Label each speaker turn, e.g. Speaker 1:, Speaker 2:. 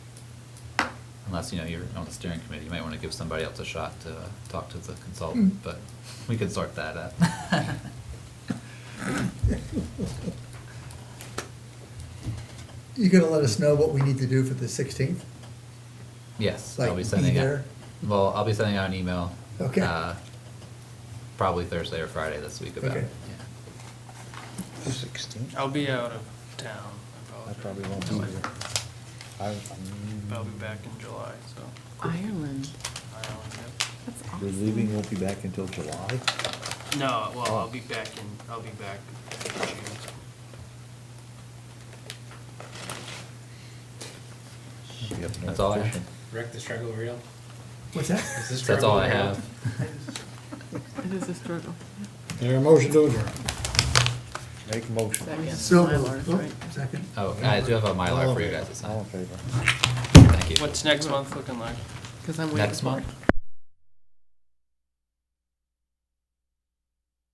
Speaker 1: unless, you know, you're on the steering committee, you might wanna give somebody else a shot to uh, talk to the
Speaker 2: Hmm.
Speaker 1: consultant, but we can sort that out.
Speaker 2: You're gonna let us know what we need to do for the sixteenth?
Speaker 1: Yes, I'll
Speaker 2: Like,
Speaker 1: be
Speaker 2: be
Speaker 1: sending out,
Speaker 2: there?
Speaker 1: well, I'll be sending out an email.
Speaker 2: Okay.
Speaker 1: uh, Probably Thursday or Friday this week about
Speaker 2: Okay.
Speaker 1: it.
Speaker 3: Sixteen?
Speaker 4: I'll be out of town.
Speaker 3: I
Speaker 4: apologize.
Speaker 3: probably won't be there. I, I'm-
Speaker 4: I'll be back in July, so
Speaker 5: Ireland.
Speaker 4: I don't have,
Speaker 5: That's awesome.
Speaker 3: You're leaving, won't be back until July?
Speaker 4: no, well, I'll be back in, I'll be back in June.
Speaker 3: You have no
Speaker 1: That's all I have.
Speaker 3: fishing.
Speaker 6: Rick, the struggle real?
Speaker 2: What's that?
Speaker 6: Is this
Speaker 1: That's all I
Speaker 6: struggle real?
Speaker 1: have.
Speaker 5: It is a struggle.
Speaker 7: There a motion to adjourn?
Speaker 3: Make a motion.
Speaker 5: That means
Speaker 2: So,
Speaker 5: Mylars,
Speaker 2: oh,
Speaker 5: right?
Speaker 2: second.
Speaker 1: Oh, I do have a
Speaker 3: All
Speaker 1: Mylar
Speaker 3: in
Speaker 1: for you
Speaker 3: favor.
Speaker 1: guys to
Speaker 3: All in
Speaker 1: sign.
Speaker 3: favor.
Speaker 1: Thank you.
Speaker 4: What's next month looking like?
Speaker 5: Because I'm waiting
Speaker 1: Next
Speaker 5: for it.
Speaker 1: month?